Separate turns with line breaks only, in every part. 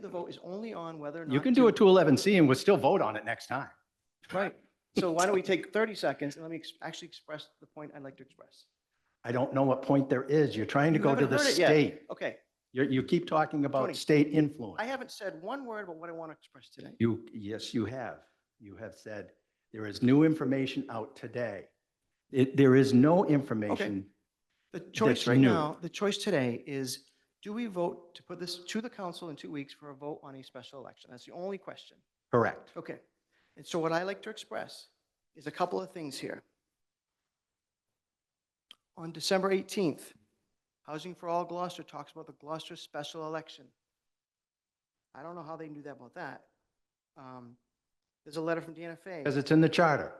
The vote is only on whether or not.
You can do a 211C and we'll still vote on it next time.
Right. So why don't we take 30 seconds and let me ex- actually express the point I'd like to express.
I don't know what point there is. You're trying to
You
go to
haven't
the
heard it yet.
state.
Okay,
You, you keep talking
Tony,
about state influence.
I haven't said one word about what I want to express today.
You, yes, you have. You have said there is new information out today. It, there is no information.
The choice
That's
right
new.
now, the choice today is, do we vote to put this to the council in two weeks for a vote on a special election? That's the only question.
Correct.
Okay. And so what I like to express is a couple of things here. On December 18th, Housing for All Gloucester talks about the Gloucester special election. I don't know how they knew that about that. Um, There's a letter from Deanna Fay.
Because it's in the charter.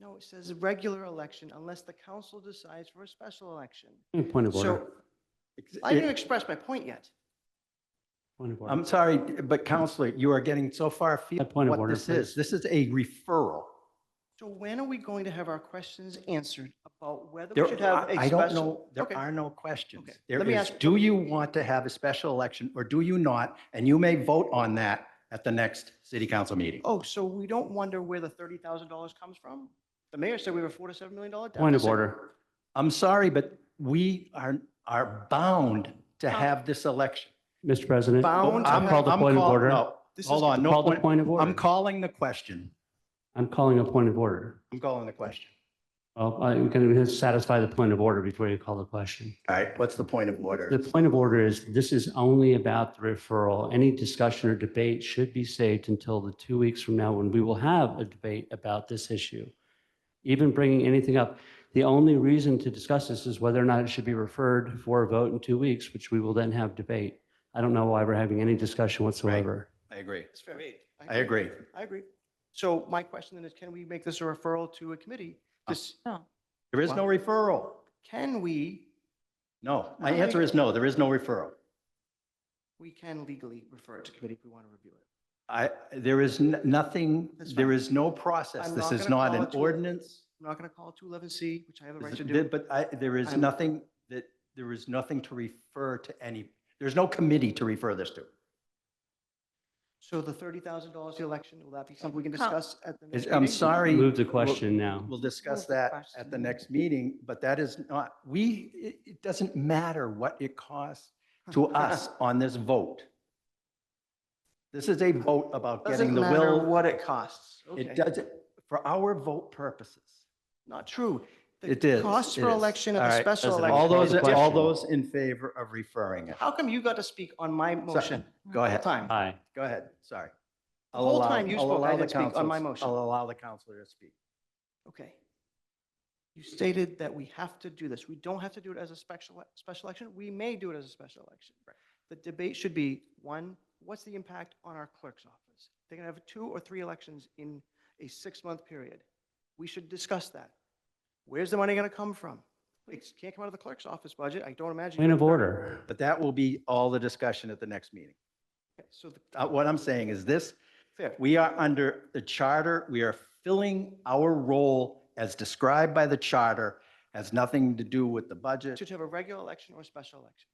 No, it says a regular election unless the council decides for a special election.
Mm, Point of order.
So I didn't express my point yet.
Point of order.
I'm sorry, but Counselor, you are getting so far afield
A point
from what
of order,
this is.
please.
This is a referral.
So when are we going to have our questions answered about whether we
There,
should have a
I
special?
I don't know, there
Okay.
are no questions.
Okay.
There
Let me
is,
ask-
do you want to have a special election or do you not? And you may vote on that at the next city council meeting.
Oh, so we don't wonder where the thirty thousand dollars comes from? The mayor said we have a four to seven million dollar deficit.
Point of order.
I'm sorry, but we are, are bound to have this election.
Mr. President.
Bound to
I'll
have-
call the
I'm
point of
call-
order.
no,
This
Hold
is-
on, no
Call the
point.
point of order.
I'm calling the question.
I'm calling a point of order.
I'm calling the question.
Well, I'm going to satisfy the point of order before you call the question.
All right, what's the point of
The
order?
point of order is this is only about the referral. Any discussion or debate should be saved until the two weeks from now when we will have a debate about this issue. Even bringing anything up, the only reason to discuss this is whether or not it should be referred for a vote in two weeks, which we will then have debate. I don't know why we're having any discussion whatsoever.
I agree.
That's fair.
I agree.
I agree. So my question then is, can we make this a referral to a committee?
Oh.
This,
There is no referral.
can we,
No, my answer is no, there is no referral.
we can legally refer it to committee if we want to review it.
I, there is n- nothing,
That's
there
fine.
is no process.
I'm
This is
gonna
not
call
an
it to-
ordinance.
I'm not going to call it two eleven C, which I have a right
This-
to
th-
do.
But I, there is
I'm-
nothing that, there is nothing to refer to any, there's no committee to refer this to.
So the thirty thousand dollars election, will that be something we can
Huh.
discuss at the next
Is-
meeting?
I'm sorry.
Move the
we'll-
question now.
We'll discuss
Move the
that at the
question.
next meeting, but that is not, we, it, it doesn't matter what it costs to us on this vote. This is a vote about
Doesn't
getting the
matter
will.
what it costs.
It
Okay.
doesn't, for our vote purposes.
Not true. The
It is.
Costs
it
for
is.
election
All
of a
right,
special
President,
election.
All
Call
those,
the
all
question.
those in favor of referring it.
How come you got to speak on my motion?
Go ahead, Uh,
Time.
Aye.
go ahead, sorry.
The
I'll
whole
allow-
time you
I'll
spoke, I
allow the
didn't speak on
councils-
my motion.
I'll allow the counselor to speak.
Okay. You stated that we have to do this. We don't have to do it as a special, special election. We may do it as a special election. The debate should be, one, what's the impact on our clerk's office? They're going to have two or three elections in a six-month period. We should discuss that. Where's the money going to come from? It can't come out of the clerk's office budget. I don't imagine.
Point of order.
But that will be all the discussion at the next meeting.
Okay, So, the-
Uh, What I'm saying is this,
fair.
we are under the charter, we are filling our role as described by the charter, has nothing to do with the budget,
Should have a regular election or a special election.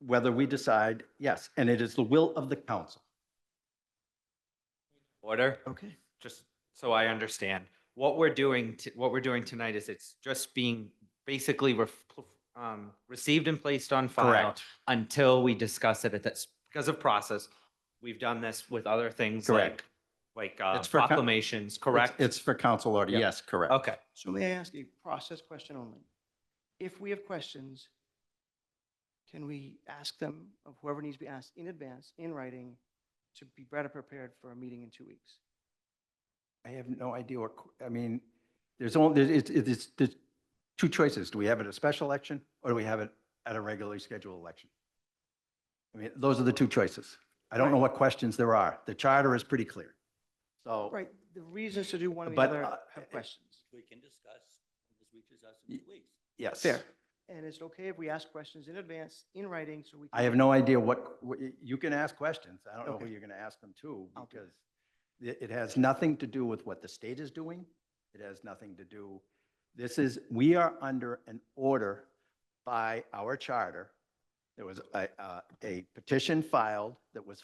whether we decide, yes, and it is the will of the council.
Order,
Okay.
just so I understand, what we're doing, t- what we're doing tonight is it's just being basically ref- um, received and placed on file until we discuss it at this, because of process. We've done this with other things
Correct.
like, like uh,
It's for co-
proclamations,
Correct.
correct?
It's for council order,
Yep.
yes, correct.
Okay,
So may I ask a process question only? If we have questions, can we ask them of whoever needs to be asked in advance, in writing, to be better prepared for a meeting in two weeks?
I have no idea what, qu- I mean, there's only, there's- it's, it's, there's two choices. Do we have it at a special election or do we have it at a regularly scheduled election? I mean, those are the two choices. I don't know what questions there are. The charter is pretty clear. So
Right, the reasons to do one or the
But,
other
uh,
have questions.
we can discuss when this reaches us
Y-
in two weeks.
Yes.
Fair. And it's okay if we ask questions in advance, in writing, so we. can-
I have no idea what, what y- you can ask questions. I don't know who
Okay.
you're going to ask them to
I'll do
because it, it has nothing to do with what the state is doing. It has nothing to do, this is, we are under an order by our charter There was a, uh, a petition filed that was